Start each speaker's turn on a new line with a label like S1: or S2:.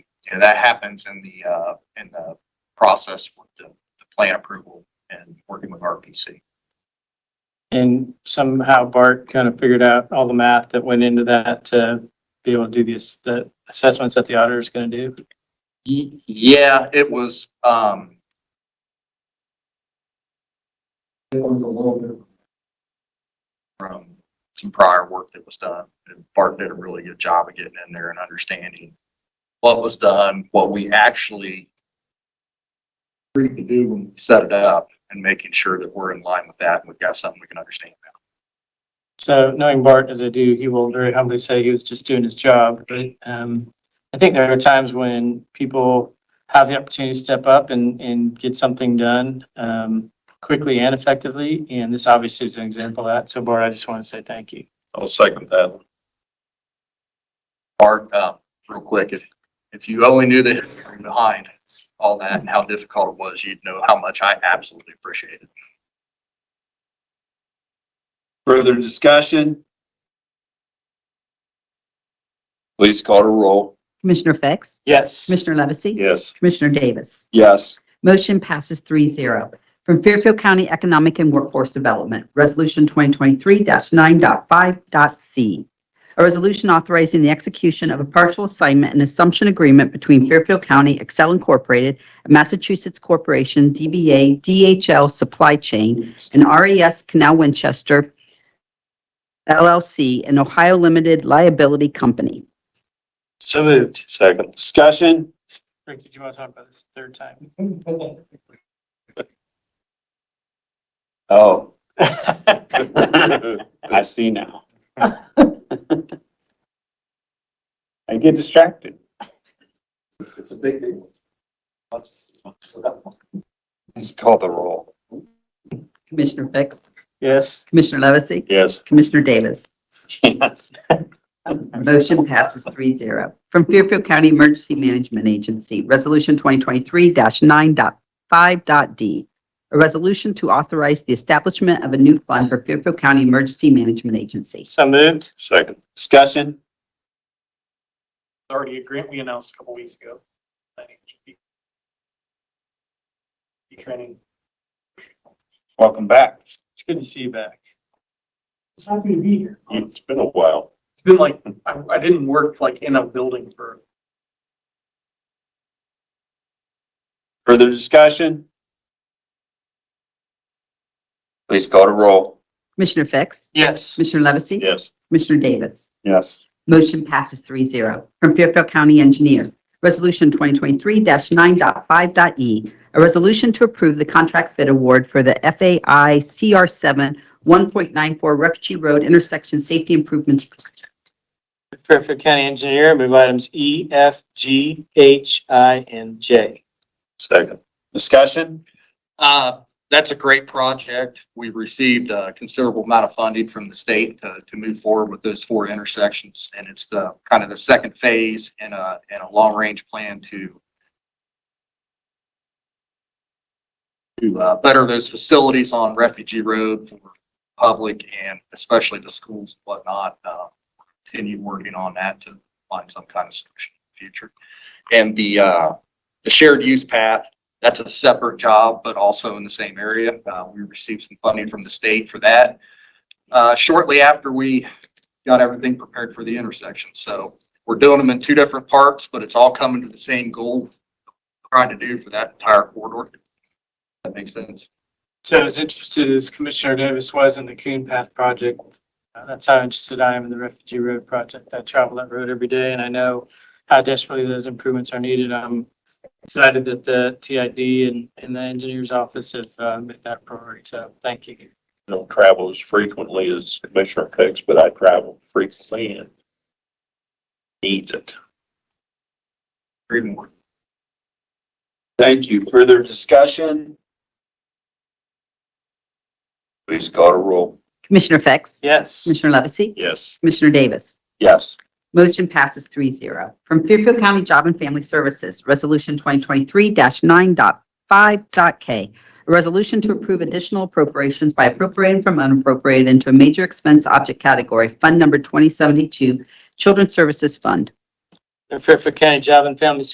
S1: Yeah, that happens in the, uh, in the process with the, the plan approval and working with RPC.
S2: And somehow Bart kind of figured out all the math that went into that to be able to do these, the assessments that the auditor is going to do.
S1: Y- Yeah, it was, um,
S3: It was a little bit.
S1: from some prior work that was done. And Bart did a really good job of getting in there and understanding what was done, what we actually
S3: Free to do when
S1: set it up and making sure that we're in line with that and we've got something we can understand.
S2: So knowing Bart as I do, he will very humbly say he was just doing his job. But um, I think there are times when people have the opportunity to step up and, and get something done um, quickly and effectively. And this obviously is an example of that. So Bart, I just want to say thank you.
S4: I'll second that.
S1: Bart, uh, real quick, if, if you only knew the history behind all that and how difficult it was, you'd know how much I absolutely appreciate it.
S4: Further discussion? Please call to roll.
S5: Commissioner Fix?
S2: Yes.
S5: Commissioner Levesey?
S4: Yes.
S5: Commissioner Davis?
S4: Yes.
S5: Motion passes 3-0. From Fairfield County Economic and Workforce Development, Resolution 2023-9.5.c. A resolution authorizing the execution of a partial assignment and assumption agreement between Fairfield County Excel Incorporated and Massachusetts Corporation DBA DHL Supply Chain and RES Canal Winchester LLC, an Ohio Limited Liability Company.
S2: So moved.
S4: Second. Discussion?
S2: Rick, did you want to talk about this a third time?
S4: Oh. I see now. I get distracted.
S3: It's a big deal.
S4: Please call the roll.
S5: Commissioner Fix?
S2: Yes.
S5: Commissioner Levesey?
S4: Yes.
S5: Commissioner Davis?
S4: Yes.
S5: Motion passes 3-0 From Fairfield County Emergency Management Agency, Resolution 2023-9.5.d. A resolution to authorize the establishment of a new fund for Fairfield County Emergency Management Agency.
S2: So moved.
S4: Second. Discussion?
S6: already a grant we announced a couple weeks ago. I think it should be. Be training.
S4: Welcome back.
S2: It's good to see you back.
S6: It's happy to be here. It's
S4: It's been a while.
S6: been like, I, I didn't work like in a building for,
S4: Further discussion? Please call to roll.
S5: Commissioner Fix?
S2: Yes.
S5: Commissioner Levesey?
S4: Yes.
S5: Commissioner Davis?
S4: Yes.
S5: Motion passes 3-0 From Fairfield County Engineer, Resolution 2023-9.5.e, E, a resolution to approve the contract bid award for the FAI CR7 1.94 Refugee Road Intersection Safety Improvements. Project.
S2: Fairfield County Engineer, move items E, F, G, H, I, and J.
S4: Second. Discussion?
S1: Uh, that's a great project. We received a considerable amount of funding from the state to, to move forward with those four intersections. And it's the, kind of the second phase in a, in a long-range plan to to, uh, better those facilities on Refugee Road for public and especially the schools and whatnot. Uh, Continue working on that to find some kind of solution in the future. And the, uh, the shared use path that's a separate job, but also in the same area. Uh, we received some funding from the state for that. Uh, shortly after we got everything prepared for the intersection. So we're doing them in two different parts, but it's all coming to the same goal we're trying to do for that entire corridor. That makes sense.
S2: So as interested as Commissioner Davis was in the Coon Path project, uh, that's how interested I am in the Refugee Road project. I travel that road every day and I know how desperately those improvements are needed. I'm excited that the TID and, and the engineer's office have uh, made that a priority. So thank you.
S7: don't travel as frequently as Commissioner Fix, but I travel frequently and needs it.
S1: Three more.
S4: Thank you. Further discussion? Please call to roll.
S5: Commissioner Fix?
S2: Yes.
S5: Commissioner Levesey?
S7: Yes,
S5: Commissioner Davis?
S4: Yes.
S5: Motion passes 3-0 From Fairfield County Job and Family Services, Resolution 2023-9.5.k. A resolution to approve additional appropriations by appropriating from unappropriated into a major expense object category, Fund Number 2072, Children's Services Fund.
S2: The Fairfield County Job and Family